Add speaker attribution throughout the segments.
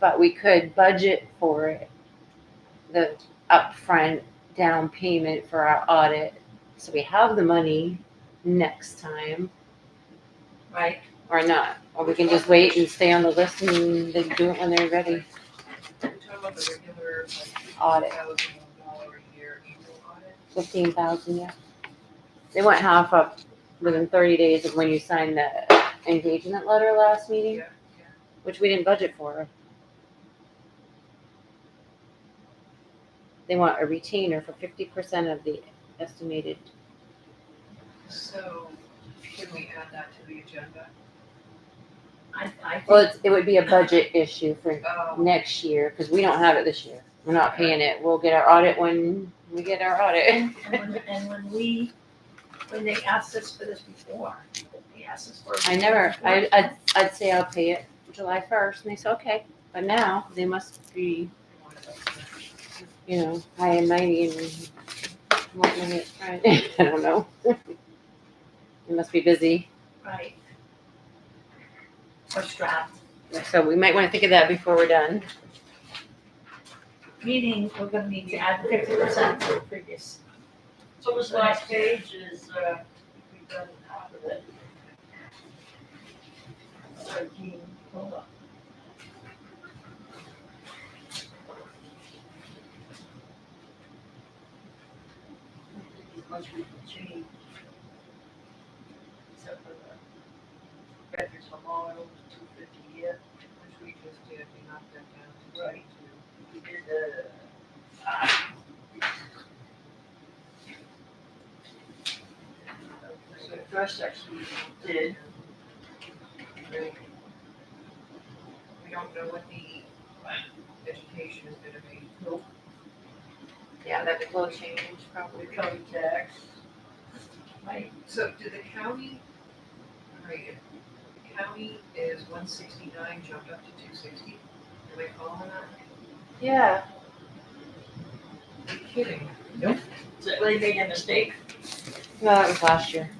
Speaker 1: but we could budget for it. The upfront down payment for our audit, so we have the money next time
Speaker 2: right?
Speaker 1: or not. Or we can just wait and stay on the list and they do it when they're ready.
Speaker 2: You're talking about the regular, like,
Speaker 1: Audit.
Speaker 2: $50,000 a year annual audit?
Speaker 1: Fifteen thousand, yeah. They went half up within thirty days of when you signed the engagement letter last meeting,
Speaker 2: Yeah, yeah.
Speaker 1: which we didn't budget for. They want a retainer for fifty percent of the estimated.
Speaker 2: So can we add that to the agenda?
Speaker 3: I, I um,
Speaker 1: Well,
Speaker 3: think,
Speaker 1: it's, it would be a budget issue for
Speaker 2: Oh,
Speaker 1: next year, cause we don't have it this year. We're not paying it. We'll get our audit when we get our audit.
Speaker 3: and when, and when we, when they asked us for this before, they asked us for.
Speaker 1: I never, I, I'd, I'd say I'll pay it July first, and they said, okay, but now they must be
Speaker 2: one of those.
Speaker 1: you know, high and mighty and wanting it right. I don't know. You must be busy.
Speaker 3: Right. Or strapped,
Speaker 1: So we might want to think of that before we're done.
Speaker 3: meaning we're gonna need to add fifty percent to the previous.
Speaker 4: So this last page is, uh, we've done half of it.
Speaker 3: Thirteen, hold on.
Speaker 4: Much we can change. Except for the records from all over two fifty yet.
Speaker 2: Which we just did, we knocked that down to
Speaker 4: Right.
Speaker 2: twenty-two.
Speaker 4: We did the. So the first section we did,
Speaker 2: We don't know what the education is gonna be.
Speaker 4: Nope.
Speaker 2: Yeah, that will change probably.
Speaker 4: we covered tax.
Speaker 3: Right,
Speaker 2: So do the county, all right, the county is one sixty-nine jumped up to two sixty? Am I following that?
Speaker 4: Yeah.
Speaker 2: You're kidding.
Speaker 4: So they made a mistake.
Speaker 1: No, that was last year.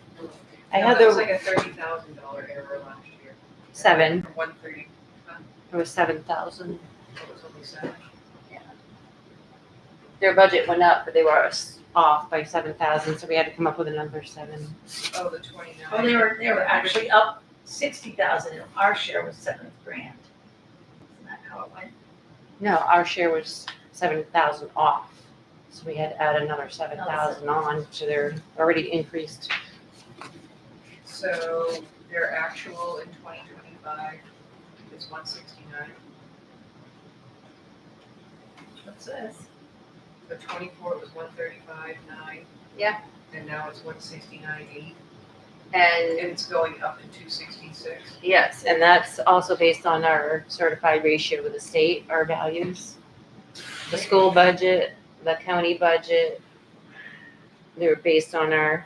Speaker 1: I
Speaker 2: No,
Speaker 1: had
Speaker 2: That was
Speaker 1: the
Speaker 2: like a thirty thousand dollar error last year.
Speaker 1: seven.
Speaker 2: From one thirty,
Speaker 1: It was seven thousand.
Speaker 2: it was only seven.
Speaker 1: Their budget went up, but they were s- off by seven thousand, so we had to come up with another seven.
Speaker 2: Oh, the twenty-nine.
Speaker 3: oh, they were, they were actually up sixty thousand, and our share was seven grand. Isn't that how it went?
Speaker 1: No, our share was seven thousand off, so we had to add another seven thousand on to their already increased.
Speaker 2: So their actual in twenty twenty-five is one sixty-nine,
Speaker 3: What's this?
Speaker 2: the twenty-four was one thirty-five nine.
Speaker 1: Yeah.
Speaker 2: And now it's one sixty-nine eight,
Speaker 1: And
Speaker 2: and it's going up to two sixty-six.
Speaker 1: Yes, and that's also based on our certified ratio with the state, our values. The school budget, the county budget, they're based on our,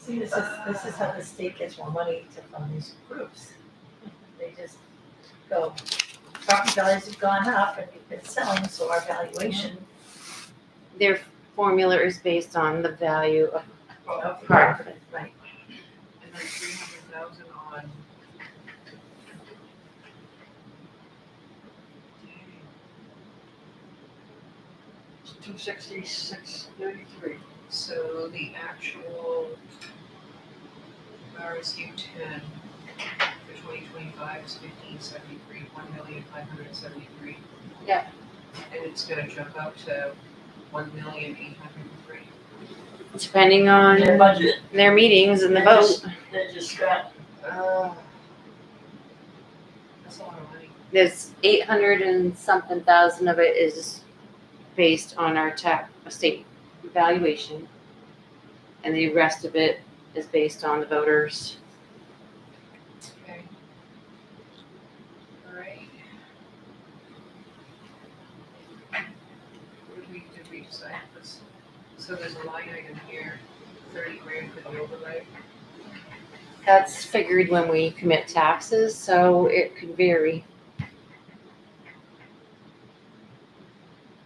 Speaker 3: See, this is, this is how the state gets more money to fund these groups. They just go, property values have gone up and we've been selling, so our valuation
Speaker 1: their formula is based on the value of
Speaker 2: Well,
Speaker 3: of
Speaker 1: Right.
Speaker 3: property, right?
Speaker 2: Oh, and then three hundred thousand on.
Speaker 4: Two sixty-six thirty-three.
Speaker 2: So the actual RSU ten for twenty twenty-five is fifteen seventy-three, one million five hundred seventy-three.
Speaker 1: Yeah.
Speaker 2: And it's gonna jump out to one million eight hundred and three.
Speaker 1: depending
Speaker 4: Their
Speaker 1: on
Speaker 4: budget,
Speaker 1: their meetings and the
Speaker 4: They're
Speaker 1: vote.
Speaker 4: just- they're just strapped.
Speaker 2: That's a lot of money.
Speaker 1: There's eight hundred and something thousand of it is based on our tax, state valuation. And the rest of it is based on the voters.
Speaker 2: Okay. All right. What did we, did we decide this? So there's a line item here, thirty grand for the overlay.
Speaker 1: That's figured when we commit taxes, so it could vary.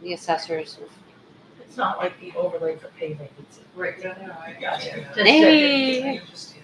Speaker 1: The assessors,
Speaker 3: It's not like the overlay for paving, it's
Speaker 2: Right, no, no, I
Speaker 3: Gotcha.
Speaker 2: understand that.
Speaker 3: Just said it.
Speaker 1: Hey.
Speaker 2: I understand